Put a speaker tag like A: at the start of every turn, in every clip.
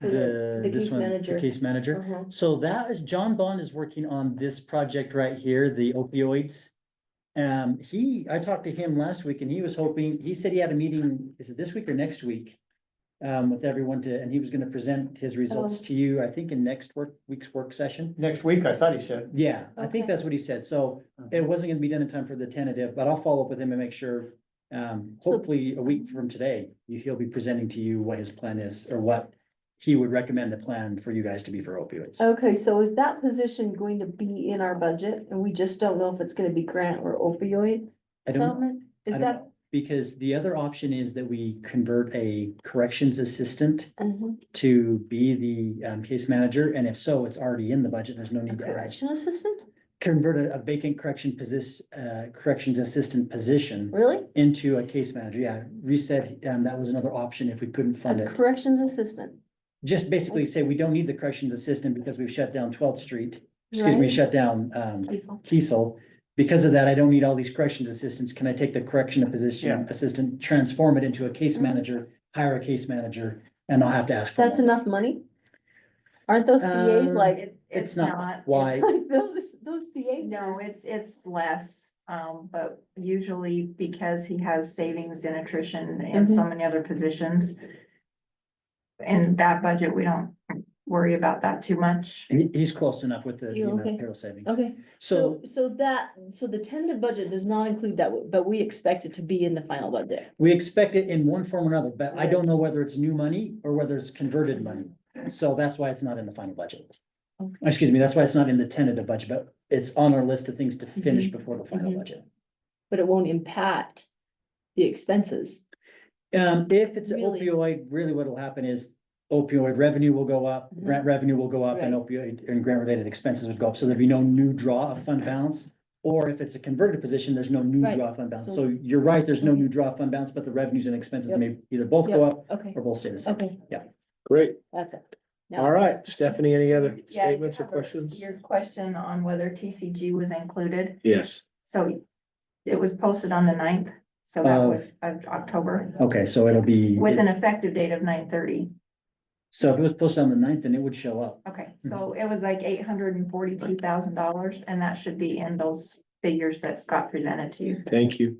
A: the,
B: The
A: this
B: case
A: one, the
B: manager.
A: case manager.
B: Uh-huh.
A: So that is, John Bond is working on this project right here, the opioids. Um, he, I talked to him last week and he was hoping, he said he had a meeting, is it this week or next week? Um, with everyone to, and he was gonna present his results
B: Oh.
A: to you, I think in next work, week's work session.
C: Next week, I thought he said.
A: Yeah, I think
B: Okay.
A: that's what he said. So it wasn't gonna be done in time for the tentative, but I'll follow up with him and make sure. Um,
B: So-
A: hopefully a week from today, you- he'll be presenting to you what his plan is or what he would recommend the plan for you guys to be for opioids.
B: Okay, so is that position going to be in our budget and we just don't know if it's gonna be grant or opioid
A: I don't,
B: settlement?
A: I
B: Is
A: don't
B: that?
A: know, because the other option is that we convert a corrections assistant
B: Mhm.
A: to be the um case manager. And if so, it's already in the budget. There's no
B: A
A: need to add.
B: correction assistant?
A: Convert a- a vacant correction position, uh, corrections assistant position.
B: Really?
A: into a case manager, yeah, reset, and that was another option if we couldn't fund
B: A
A: it.
B: corrections assistant?
A: Just basically say we don't need the corrections assistant because we've shut down Twelfth Street, excuse me,
B: right?
A: shut down, um,
B: Diesel.
A: Kiesel. Because of that, I don't need all these corrections assistants, can I take the correction position
C: Yeah.
A: assistant, transform it into a case
B: Mhm.
A: manager, hire a case manager, and I'll have to ask for
B: That's
A: more.
B: enough money? Aren't those CAs
A: Um,
B: like?
D: It, it's
A: not
D: not,
A: Why,
B: it's like Those, those CAs?
D: no, it's, it's less, um, but usually because he has savings in attrition and so many other positions. In that budget, we don't worry about that too much.
A: and he- he's close enough with the the
B: You
A: amount
B: okay?
A: of payroll savings.
E: Okay, so,
A: So
E: so that, so the tentative budget does not include that, but we expect it to be in the final budget.
A: we expect it in one form or another, but I
E: Right.
A: don't know whether it's new money or whether it's converted money. So that's why it's not in the final budget.
E: Okay.
A: Excuse me, that's why it's not in the tentative budget, but it's on our list of things to finish before the final
E: Mhm.
A: budget.
E: But it won't impact the expenses.
A: Um, if it's an
E: Really?
A: opioid, really what'll happen is opioid revenue will go up,
E: Mhm.
A: grant revenue will go up and opioid and grant related expenses would go up. So there'd be no new draw of fund balance. Or if it's a converted position, there's no new
E: Right.
A: draw of fund balance.
E: So- mm-hmm.
A: So you're right, there's no new draw of fund balance, but the revenues and expenses
E: Yep.
A: may either both go up
E: Okay,
A: or both stay the same.
E: okay,
C: Great,
E: that's it.
C: all right, Stephanie, any other
D: Yeah, you
C: statements or
D: have a-
C: questions?
D: Your question on whether TCG was included,
C: Yes.
D: so it was posted on the 9th, so that
C: Uh,
A: Of-
D: was of October.
A: Okay, so it'll be,
D: With an effective date of nine thirty.
A: so if it was posted on the ninth, then it would show up.
D: Okay, so it was like eight hundred and forty-two thousand dollars, and that should be in those figures that Scott presented to you.
C: Thank you.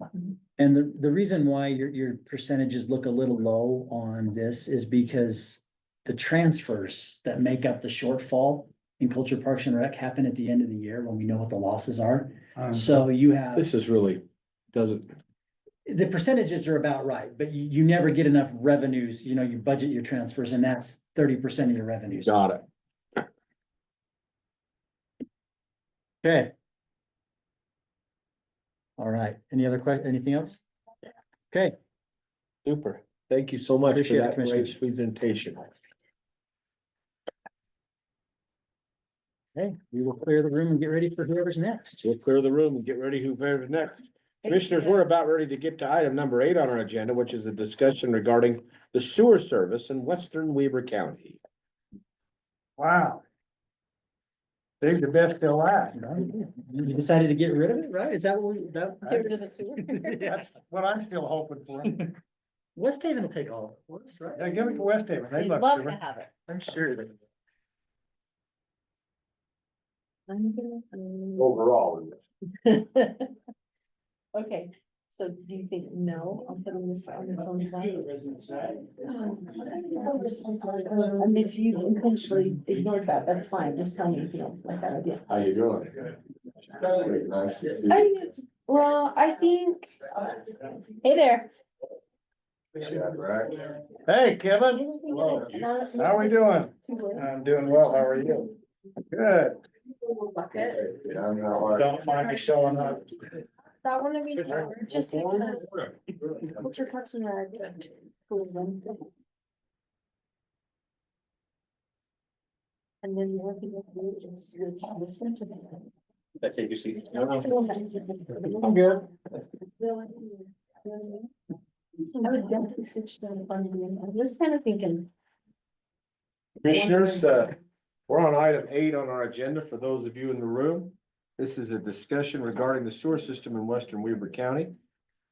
A: And the, the reason why your, your percentages look a little low on this is because the transfers that make up the shortfall in Culture Parks and Rec happen at the end of the year when we know what the losses are.
C: Um,
A: So you have,
C: This is really, doesn't,
A: the percentages are about right, but you, you never get enough revenues, you know, you budget your transfers and that's thirty percent of your revenues.
C: got it.
A: Okay. All right, any other que, anything else? Okay,
C: Super. Thank you so much for
A: Appreciate it,
C: that
A: Commissioner.
C: great presentation.
A: hey, we will clear the room and get ready for whoever's next.
C: We'll clear the room and get ready whoever's next. Commissioners, we're about ready to get to item number eight on our agenda, which is a discussion regarding the sewer service in western Weber County.
F: Wow. Save the best till last.
A: You decided to get rid of it, right? Is that what we, that?
E: Get rid of the sewer.
F: That's what I'm still hoping for.
A: West Haven will take all of it, right?
F: Yeah, give it to West Haven. They
E: We'd
F: love
E: love to
F: sewer.
E: have it.
F: I'm sure they do.
E: I'm gonna, um,
C: Overall.
E: Okay, so do you think no, I'll put on this on its own side? Um, And if you intentionally ignored that, that's fine, just tell me if you don't like that idea.
C: How you doing? Nice to see you.
E: I think it's, well, I think. Hey there.
F: Hey, Kevin, how we doing? I'm doing well. How are you? Good. Don't mind me showing up.
E: That one I mean, just because. Culture Parks and Rec. tourism. And then the other thing that we do is we have this one to.
F: I'm good.
E: I would definitely switch to the funding, I'm just kind of thinking.
C: Commissioners, uh, we're on item eight on our agenda for those of you in the room. This is a discussion regarding the sewer system in western Weaver County.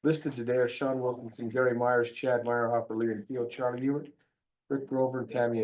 C: Listed today are Sean Wilkinson, Gary Myers, Chad Meyerhopper, Lee and Keel, Charlie Ewert, Rick Grover, and Tammy